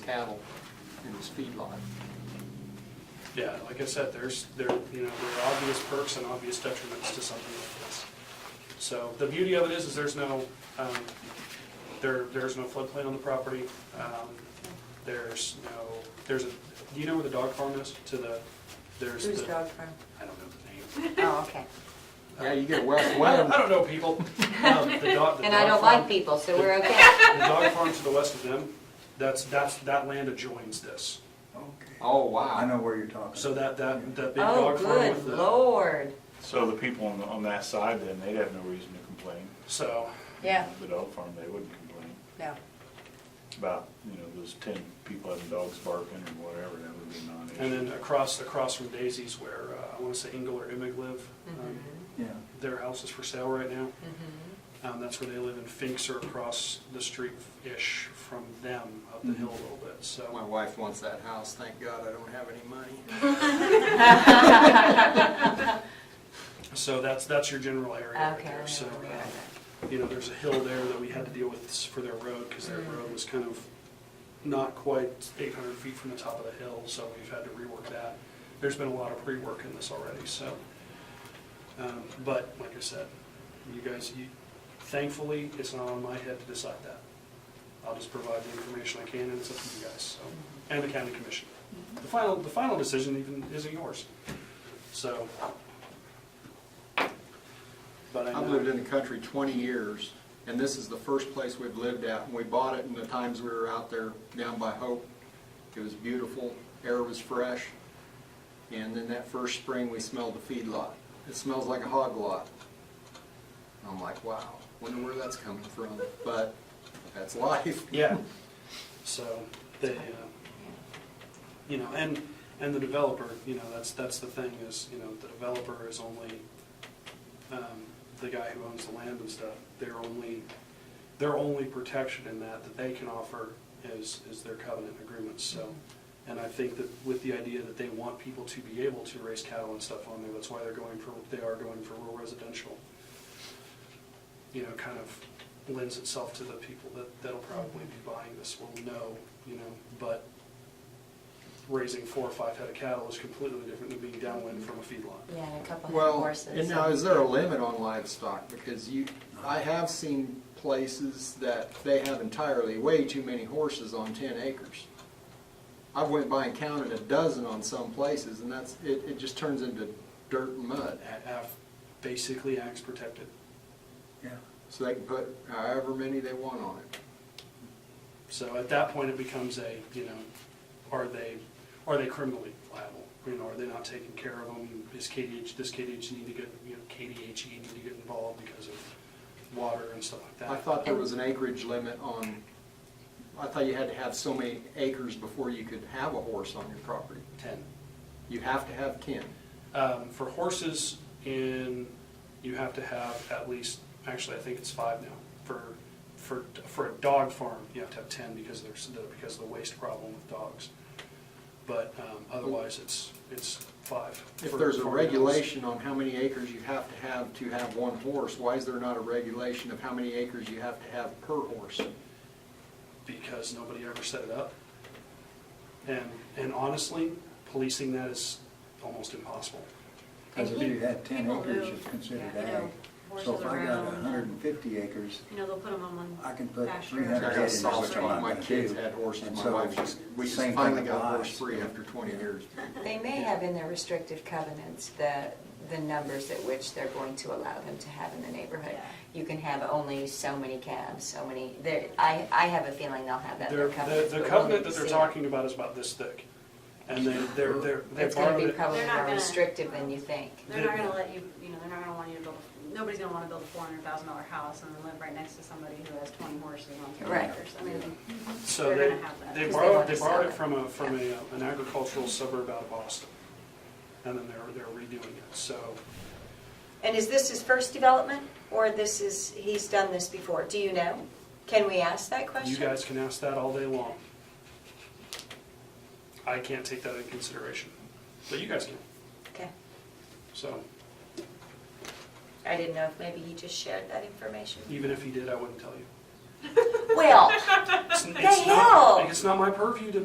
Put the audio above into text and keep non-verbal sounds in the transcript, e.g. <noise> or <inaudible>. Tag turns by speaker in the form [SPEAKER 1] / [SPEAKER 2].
[SPEAKER 1] cattle in this feedlot.
[SPEAKER 2] Yeah, like I said, there's, there, you know, there are obvious perks and obvious detriments to something like this. So the beauty of it is, is there's no, um, there, there's no floodplain on the property. Um, There's no, there's a, do you know where the dog farm is? To the, there's
[SPEAKER 3] Who's
[SPEAKER 2] the,
[SPEAKER 3] dog from?
[SPEAKER 2] I don't know the name.
[SPEAKER 3] Oh, okay.
[SPEAKER 1] Yeah, you get West <laughs>
[SPEAKER 2] I don't,
[SPEAKER 1] Wind,
[SPEAKER 2] I don't know people. Um, the dog- the
[SPEAKER 3] <laughs> And I
[SPEAKER 2] dog farm-
[SPEAKER 3] don't like people, so we're
[SPEAKER 2] <laughs>
[SPEAKER 3] okay.
[SPEAKER 2] The dog farm to the west of them, that's, that's, that land adjoins this.
[SPEAKER 4] Okay.
[SPEAKER 1] oh,
[SPEAKER 4] I
[SPEAKER 1] wow.
[SPEAKER 4] know where you're talking.
[SPEAKER 2] So that, that, that big
[SPEAKER 3] Oh,
[SPEAKER 2] dog farm
[SPEAKER 3] good
[SPEAKER 2] with the.
[SPEAKER 3] lord.
[SPEAKER 5] So the people on, on that side then, they'd have no reason to complain.
[SPEAKER 2] So,
[SPEAKER 3] Yeah,
[SPEAKER 5] The dog farm, they wouldn't complain
[SPEAKER 3] no.
[SPEAKER 5] about, you know, those ten people having dogs barking or whatever, that would be a
[SPEAKER 2] And
[SPEAKER 5] non-issue.
[SPEAKER 2] then across, across from Daisy's where, uh, I wanna say Engel or Emig live, um,
[SPEAKER 4] Yeah,
[SPEAKER 2] their house is for sale right now. Um, that's where they live, and Finks are across the street-ish from them, up the hill a little bit,
[SPEAKER 1] My
[SPEAKER 2] so.
[SPEAKER 1] wife wants that house, thank God I don't have any money.
[SPEAKER 2] So that's, that's your general area right
[SPEAKER 3] Okay.
[SPEAKER 2] there, so, uh, you know, there's a hill there that we had to deal with s- for their road, cause their
[SPEAKER 3] Mm-hmm.
[SPEAKER 2] road was kind of not quite eight hundred feet from the top of the hill, so we've had to rework that. There's been a lot of pre-work in this already, so. Um, But, like I said, you guys, you- thankfully, it's not on my head to decide that. I'll just provide the information I can, and it's up to you guys, so, and the county commission. The final, the final decision even isn't yours, so. But I
[SPEAKER 1] I've lived
[SPEAKER 2] know,
[SPEAKER 1] in the country twenty years, and this is the first place we've lived at, and we bought it in the times we were out there down by Hope. It was beautiful, air was fresh, and then that first spring, we smelled the feedlot. It smells like a hog lot. And I'm like, wow, wonder where that's coming from, but that's life.
[SPEAKER 2] yeah, so, they, uh, you know, and, and the developer, you know, that's, that's the thing, is, you know, the developer is only, um, the guy who owns the land and stuff, their only, their only protection in that, that they can offer is, is their covenant agreements, so. And I think that with the idea that they want people to be able to raise cattle and stuff on there, that's why they're going for, they are going for rural residential. You know, kind of lends itself to the people that, that'll probably be buying this will know, you know, but raising four or five head of cattle is completely different than being downwind from a feedlot.
[SPEAKER 3] Yeah, and a couple of
[SPEAKER 1] Well,
[SPEAKER 3] horses.
[SPEAKER 1] and now, is there a limit on livestock? Because you, I have seen places that they have entirely way too many horses on ten acres. I've went by and counted a dozen on some places, and that's, it, it just turns into dirt and mud.
[SPEAKER 2] A- af- Basically, acts protected.
[SPEAKER 4] yeah.
[SPEAKER 1] So they can put however many they want on it.
[SPEAKER 2] So at that point, it becomes a, you know, are they, are they criminally liable? You know, are they not taking care of them? Is KDH, does KDH need to get, you know, KDHE E need to get involved because of water and stuff like that?
[SPEAKER 1] I thought there was an acreage limit on, I thought you had to have so many acres before you could have a horse on your property.
[SPEAKER 2] Ten.
[SPEAKER 1] You have to have ten.
[SPEAKER 2] Um, for horses in, you have to have at least, actually, I think it's five now. For, for, for a dog farm, you have to have ten because there's, the- because of the waste problem with dogs. But, um, otherwise, it's, it's five.
[SPEAKER 1] If
[SPEAKER 2] for
[SPEAKER 1] there's a
[SPEAKER 2] farm animals.
[SPEAKER 1] regulation on how many acres you have to have to have one horse, why is there not a regulation of how many acres you have to have per horse?
[SPEAKER 2] because nobody ever set it up. And, and honestly, policing that is almost impossible.
[SPEAKER 4] Because if you had ten
[SPEAKER 6] People
[SPEAKER 4] acres,
[SPEAKER 6] move,
[SPEAKER 4] it's considered
[SPEAKER 6] yeah, you know,
[SPEAKER 4] ag. So if
[SPEAKER 6] horses
[SPEAKER 4] I got
[SPEAKER 6] around, uh,
[SPEAKER 4] hundred and fifty acres,
[SPEAKER 6] You know, they'll put them on one.
[SPEAKER 4] I can put
[SPEAKER 6] pasture.
[SPEAKER 4] three hundred
[SPEAKER 1] I
[SPEAKER 4] head
[SPEAKER 1] got
[SPEAKER 4] in, is
[SPEAKER 1] soft
[SPEAKER 4] what I'm
[SPEAKER 1] spot. My
[SPEAKER 4] gonna
[SPEAKER 1] kids
[SPEAKER 4] do.
[SPEAKER 1] had horses,
[SPEAKER 4] And
[SPEAKER 1] my
[SPEAKER 4] so,
[SPEAKER 1] wife just, we just
[SPEAKER 4] same thing
[SPEAKER 1] finally got
[SPEAKER 4] applies.
[SPEAKER 1] horse free after twenty years.
[SPEAKER 3] They may have in their restrictive covenants the, the numbers at which they're going to allow them to have in the neighborhood. You can have only so many calves, so many, there, I, I have a feeling they'll have that in
[SPEAKER 2] Their-
[SPEAKER 3] their
[SPEAKER 2] The,
[SPEAKER 3] covenants.
[SPEAKER 2] the
[SPEAKER 3] but we'll
[SPEAKER 2] covenant
[SPEAKER 3] need
[SPEAKER 2] that
[SPEAKER 3] to
[SPEAKER 2] they're
[SPEAKER 3] see.
[SPEAKER 2] talking about is about this thick. And they, they're, they're, they
[SPEAKER 3] It's gonna
[SPEAKER 2] borrowed
[SPEAKER 3] be
[SPEAKER 2] it.
[SPEAKER 3] probably
[SPEAKER 6] They're not
[SPEAKER 3] more
[SPEAKER 6] gonna-
[SPEAKER 3] restrictive than you think.
[SPEAKER 6] They're not gonna let you, you know, they're not gonna want you to build, nobody's gonna wanna build a four hundred thousand dollar house and then live right next to somebody who has twenty horses on three
[SPEAKER 3] Right.
[SPEAKER 6] acres. I mean,
[SPEAKER 2] So
[SPEAKER 6] they're
[SPEAKER 2] they,
[SPEAKER 6] gonna have that.
[SPEAKER 2] they
[SPEAKER 3] Because they
[SPEAKER 2] borrowed,
[SPEAKER 3] want
[SPEAKER 2] they
[SPEAKER 3] to sell
[SPEAKER 2] borrowed it
[SPEAKER 3] it.
[SPEAKER 2] from a, from a, uh, an agricultural suburb out of Boston. And then they're, they're redoing it, so,
[SPEAKER 3] And is this his first development, or this is, he's done this before? Do you know? Can we ask that
[SPEAKER 2] you
[SPEAKER 3] question?
[SPEAKER 2] guys can ask that all day long. I can't take that into consideration, but you guys can,
[SPEAKER 3] Okay.
[SPEAKER 2] so.
[SPEAKER 3] I didn't know if maybe he just shared that information.
[SPEAKER 2] Even if he did, I wouldn't tell you.
[SPEAKER 3] Well,
[SPEAKER 2] It's-
[SPEAKER 3] The
[SPEAKER 2] it's not-
[SPEAKER 3] hell?
[SPEAKER 2] It's not my purview to